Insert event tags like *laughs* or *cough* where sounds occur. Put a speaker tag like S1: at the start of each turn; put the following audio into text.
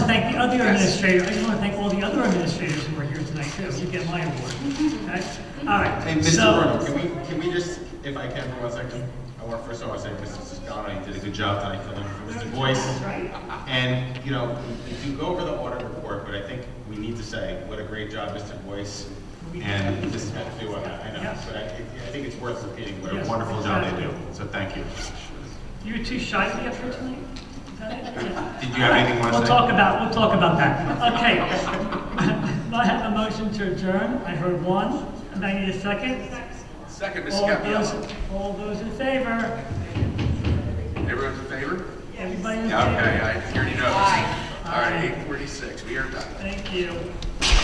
S1: thank the other administrator, I just want to thank all the other administrators who are here tonight, too. You get my award. Okay? All right.
S2: Hey,
S1: so-
S2: Mr. Bruno, can we, can we just, if I can for one second, I want, first of all, I say, Mr. Siscano, you did a good job tonight filling in for Mr. Boyce.
S1: Right?
S2: And, you know, if you go over the audit report, but I think we need to say, what a great job, Mr. Boyce and Mrs. Methu, I I know,
S1: Yes.
S2: but I, I think it's worth repeating, what a
S1: Yes,
S2: wonderful job they do,
S1: exactly.
S2: so thank you.
S1: You were too shy to be up here tonight? Is that it? Yeah.
S2: Did you have anything you want to say?
S1: We'll talk about, we'll talk about that. Okay. *laughs* Do I have a motion to adjourn? I heard one, and I need a second.
S3: Second, Mrs.
S1: All those,
S3: Gabrielle.
S1: all those in favor?
S3: Everyone's in favor?
S1: Everybody in
S3: Yeah,
S1: favor?
S3: okay, I already know. All right, eight forty-six, we are done.
S1: Thank you.